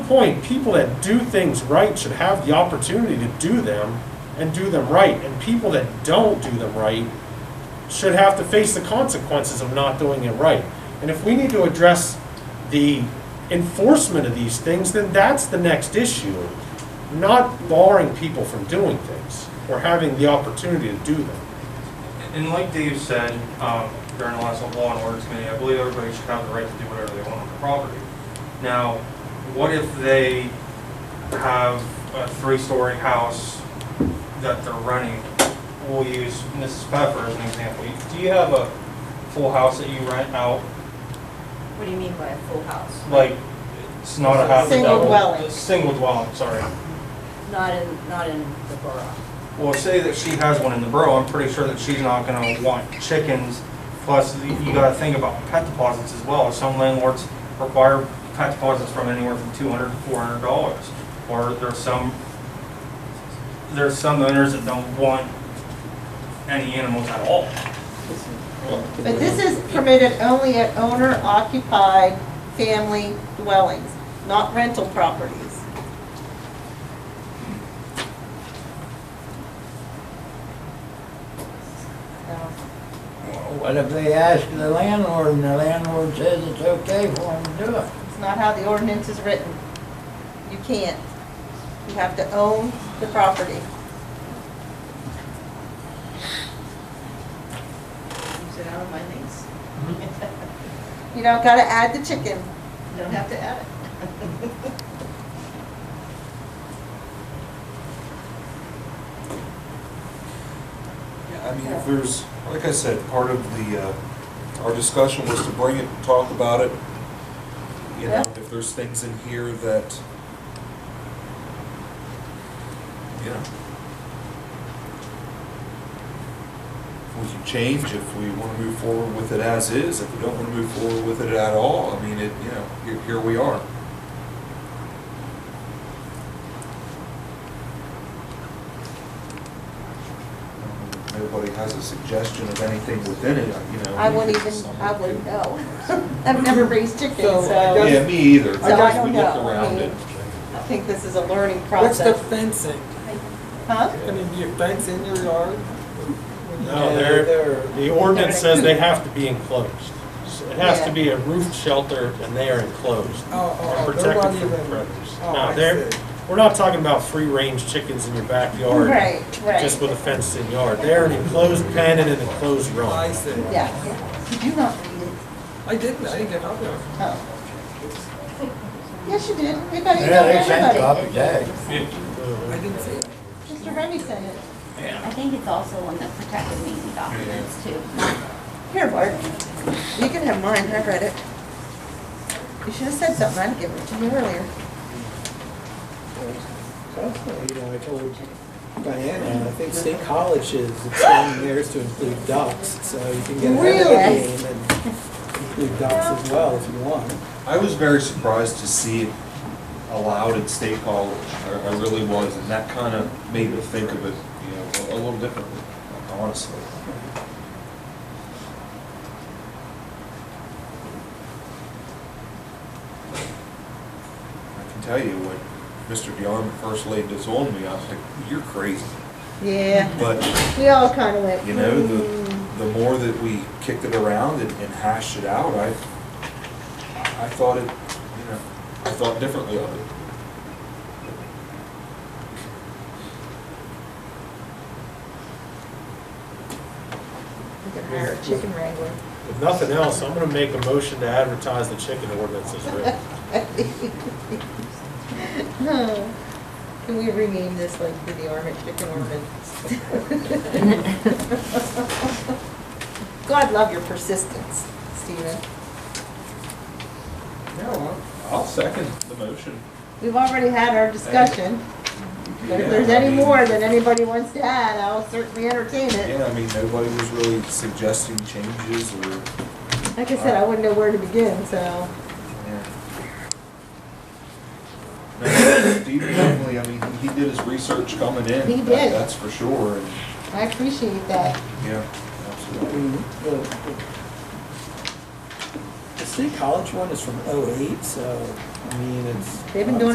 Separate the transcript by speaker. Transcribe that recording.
Speaker 1: point, people that do things right should have the opportunity to do them and do them right. And people that don't do them right should have to face the consequences of not doing it right. And if we need to address the enforcement of these things, then that's the next issue, not barring people from doing things or having the opportunity to do them.
Speaker 2: And like Dave said, um, during the last law and orders committee, I believe everybody should have the right to do whatever they want on their property. Now, what if they have a three-story house that they're renting? We'll use Mrs. Pfeffer as an example. Do you have a full house that you rent out?
Speaker 3: What do you mean by a full house?
Speaker 2: Like, it's not a half a
Speaker 3: Single
Speaker 2: double.
Speaker 3: dwelling.
Speaker 2: Single dwelling, sorry.
Speaker 3: Not in, not in the borough.
Speaker 2: Well, say that she has one in the borough, I'm pretty sure that she's not gonna want chickens. Plus, you gotta think about pet deposits as well. Some landlords require pet deposits from anywhere from two hundred to four hundred dollars. Or there's some, there's some owners that don't want any animals at all.
Speaker 4: But this is permitted only at owner occupied family dwellings, not rental properties. So,
Speaker 5: What if they ask the landlord and the landlord says it's okay for them to do it?
Speaker 4: It's not how the ordinance is written. You can't. You have to own the property.
Speaker 3: Keeps it out of my lease.
Speaker 4: You don't gotta add the chicken.
Speaker 3: Don't have to add it.
Speaker 6: Yeah, I mean, if there's, like I said, part of the, uh, our discussion was to bring it, talk about it. You know,
Speaker 4: Yeah.
Speaker 6: if there's things in here that, you know, we can change if we want to move forward with it as is, if we don't want to move forward with it at all, I mean, it, you know, here, here we are. If Nobody has a suggestion of anything within it, you know.
Speaker 4: I wouldn't even,
Speaker 6: someone
Speaker 4: I wouldn't
Speaker 6: could-
Speaker 4: know. I've never raised chickens,
Speaker 7: So, I
Speaker 4: so.
Speaker 6: Yeah, me either.
Speaker 4: So I don't
Speaker 6: We
Speaker 4: know.
Speaker 6: looked
Speaker 4: I
Speaker 6: around
Speaker 4: mean-
Speaker 6: it.
Speaker 4: I think this is a learning
Speaker 7: What's the
Speaker 4: process.
Speaker 7: fencing?
Speaker 4: Huh?
Speaker 7: I mean, your fence in your yard?
Speaker 1: No,
Speaker 7: Yeah,
Speaker 1: they're, the ordinance says they have to be enclosed. So It has to
Speaker 4: Yeah.
Speaker 1: be a roofed shelter and they are enclosed.
Speaker 7: Oh, oh,
Speaker 1: and
Speaker 7: oh, they're
Speaker 1: protected
Speaker 7: not
Speaker 1: from
Speaker 7: even-
Speaker 1: predators.
Speaker 7: oh,
Speaker 1: Now,
Speaker 7: I
Speaker 1: they're,
Speaker 7: see.
Speaker 1: we're not talking about free-range chickens in your backyard.
Speaker 4: Right, right.
Speaker 1: Just with a fenced in yard. They're an enclosed pen and an enclosed
Speaker 7: I
Speaker 1: room.
Speaker 7: said,
Speaker 4: Yeah. Did you not read it?
Speaker 7: I didn't, I didn't get out there.
Speaker 4: Oh. Yes, you did. We got it
Speaker 5: Yeah, they
Speaker 4: from
Speaker 5: sent
Speaker 4: everybody.
Speaker 5: copies, hey.
Speaker 7: I didn't see it.
Speaker 4: Mr. Harvey sent it.
Speaker 8: I think it's also on the protected meeting documents too.
Speaker 4: Here, Bart. You can have mine. I read it. You should have said something. I'd given it to you earlier.
Speaker 7: That's what, You know, I told Diana, I think state college is expanding theirs to include ducks, so you can get ahead of
Speaker 4: Really?
Speaker 7: the game and include ducks as well if you want.
Speaker 6: I was very surprised to see it allowed at State College. I, I really was, and that kind of made me think of it, you know, a, a little differently, honestly. I can tell you when Mr. Dion first laid this on me, I was like, "You're crazy,"
Speaker 4: Yeah.
Speaker 6: but
Speaker 4: We all kind of went.
Speaker 6: you know, the,
Speaker 4: "Hmm."
Speaker 6: the more that we kicked it around and and hashed it out, I, I thought it, you know, I thought differently of it.
Speaker 4: We can hire a chicken wrangler.
Speaker 1: If nothing else, I'm gonna make a motion to advertise the chicken ordinance as written.
Speaker 4: No. Hmm. Can we rename this like the Armit Chicken Orman? God love your persistence, Stephen.
Speaker 6: Yeah, well, I'll second the motion.
Speaker 4: We've already had our discussion. But if there's any more that anybody wants to add, I'll certainly entertain it.
Speaker 6: Yeah, I mean, nobody was really suggesting changes or,
Speaker 4: Like I said, I wouldn't know where to begin, so.
Speaker 6: yeah. No, Steve definitely, I mean, he did his research coming in.
Speaker 4: He
Speaker 6: that-
Speaker 4: did.
Speaker 6: That's for sure, and,
Speaker 4: I appreciate that.
Speaker 6: yeah,
Speaker 7: I
Speaker 6: absolutely.
Speaker 7: mean, the, the- the state college one is from oh eight, so, I mean, it's.
Speaker 4: They've been doing